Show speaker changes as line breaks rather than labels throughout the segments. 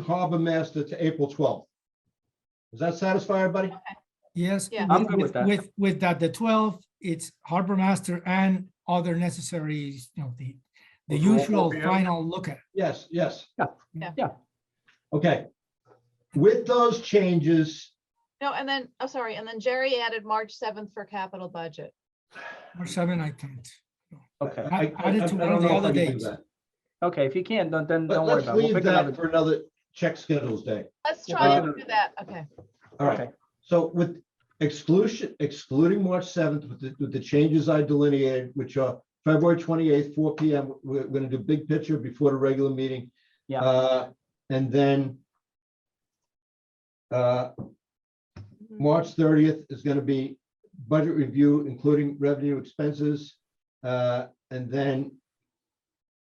harbor master to April twelfth. Does that satisfy everybody?
Yes.
Yeah.
I'm good with that.
With, with that, the twelve, it's harbor master and other necessary, you know, the, the
Okay.
usual
Yeah.
final look at.
Yes, yes.
Yeah,
Yeah.
yeah.
Okay. With those changes,
No, and then, I'm sorry, and then Jerry added March seventh for capital budget.
Or seven, I can't.
Okay,
I, I-
I- I
I
did
don't
to one of the
know if I
other
can do
days.
that.
okay, if you can't, then, then
But
don't worry
let's
about it. We'll
leave
pick another.
that for another check schedules day.
Let's
Yeah,
try
but-
and do that, okay.
All right.
Okay.
So with exclusion, excluding March seventh, with the, with the changes I delineated, which are February twenty-eighth, four P M. We're, we're gonna do big picture before the regular meeting.
Yeah.
Uh, And then uh,
Mm-hmm.
March thirtieth is gonna be budget review, including revenue expenses. Uh, And then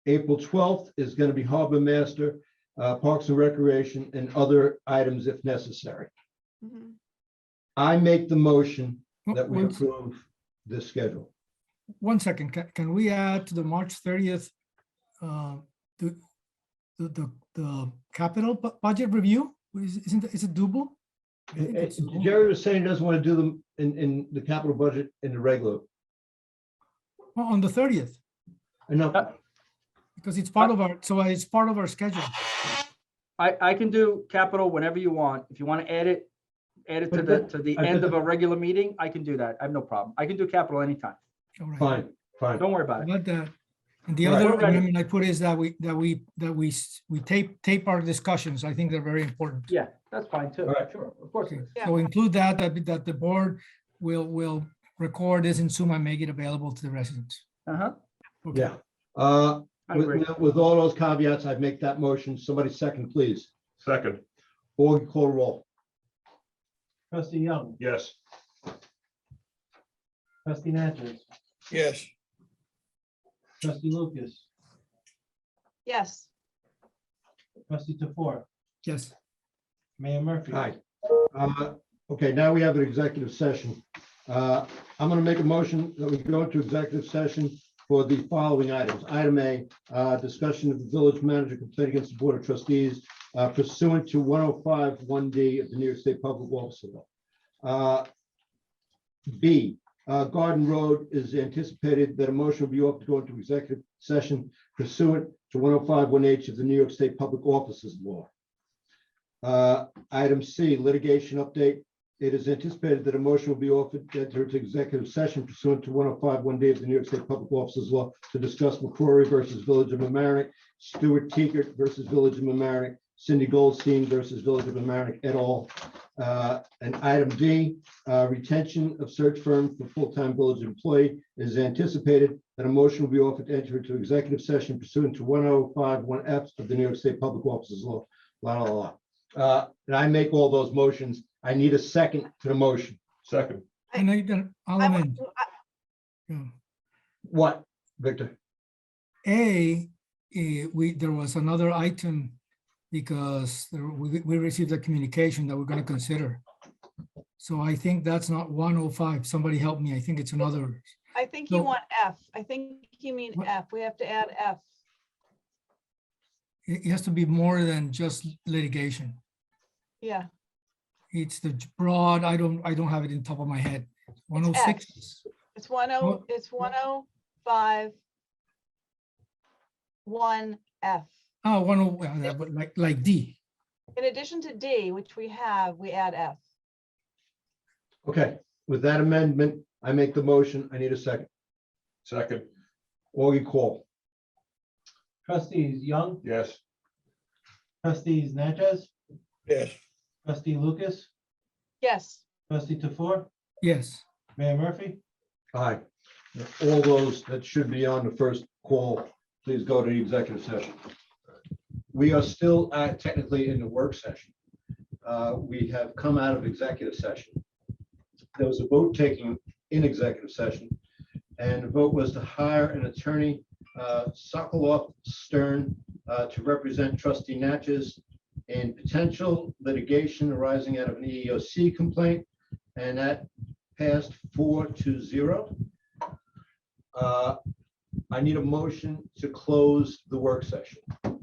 April twelfth is gonna be harbor master, uh, parks and recreation and other items if necessary.
Mhm.
I make the motion
One-
that we
Oh, one-
approve this schedule.
One second, can, can we add to the March thirtieth, uh, the, the, the, the capital bu- budget review? Is, isn't, is it doable? I think
Eh,
it's doable.
Jerry was saying he doesn't want to do them in, in the capital budget in the regular.
Oh, On the thirtieth,
Enough,
Uh,
because it's part of our, so it's part of our schedule.
I, I can do capital whenever you want. If you want to add it, add it to
But
the,
then-
to the
I-
end
but
of a regular meeting, I can do that. I have no problem. I can do capital anytime.
All right.
fine, fine.
Don't worry about it.
About that. And the
Right.
other
Alright.
amendment I put is that we, that we, that we, s- we tape, tape our discussions. I think they're very important.
Yeah, that's fine too.
All right.
Sure, of course. it is.
Yeah.
So include that, that, be- that the board will, will record this in Zoom and make it available to the residents.
Uh-huh,
Okay.
Yeah. Uh,
I
With,
agree.
with- with all those caveats, I'd make that motion. Somebody second, please.
Second,
Or call roll.
Trustee Young,
yes.
trustee Natchez,
Yes,
trustee Lucas,
Yes,
trustee Tefor,
Yes,
Mayor Murphy.
Aye. Uh, Okay, now we have an executive session. Uh, I'm going to make a motion that we go into executive session for the following items. Item A, uh, discussion of the village manager complaint against the Board of Trustees uh, pursuant to 105 1D of the New York State Public Law. Civil. Uh, B, uh, Garden Road is anticipated that a motion will be offered to go into executive session pursuant to 105 1H of the New York State Public Offices Law. Uh, Item C, litigation update. It is anticipated that a motion will be offered to enter into executive session pursuant to 105 one day of the New York State Public Officers Law to discuss McCrory versus Village of Mamaronek, Stuart Teager versus Village of Mamaronek, Cindy Goldstein versus Village of Mamaronek et al. Uh, And item D, uh, retention of search firm for full-time village employee It is anticipated that a motion will be offered to enter into executive session pursuant to 105 one F of the New York State Public Officers Law. La, la, la. Uh, And I make all those motions. I need a second to the motion.
Second,
I-
and I, then I'll
I would
amend.
do- I-
yeah.
What, Victor?
A, eh, we, there was another item because there- we, we received a communication that we're gonna consider. So I think that's not one oh five. Somebody help me. I think it's another.
I think you
No.
want F, I think you mean
What?
F, we have to add F.
It it has to be more than just litigation.
Yeah,
It's the j- broad, I don't, I don't have it in top of my head. One oh
It's X.
six,
it's one oh,
Well-
it's one oh five one F.
oh, one oh, well, that would like, like D.
In addition to D, which we have, we add F.
Okay, with that amendment, I make the motion. I need a second.
second,
Augie call.
Trustees Young,
yes.
trustees Natchez,
yes.
trustee Lucas,
Yes.
trustee Tefor,
Yes.
Mayor Murphy.
Aye. All those that should be on the first call, please go to the executive session. We are still uh, technically in the work session. Uh, We have come out of executive session. There was a vote taken in executive session, and the vote was to hire an attorney, uh, Sokoloff Stern, uh, to represent trustee Natchez in potential litigation arising out of an E EEOC complaint, and that passed four to zero. Uh, I need a motion to close the work session.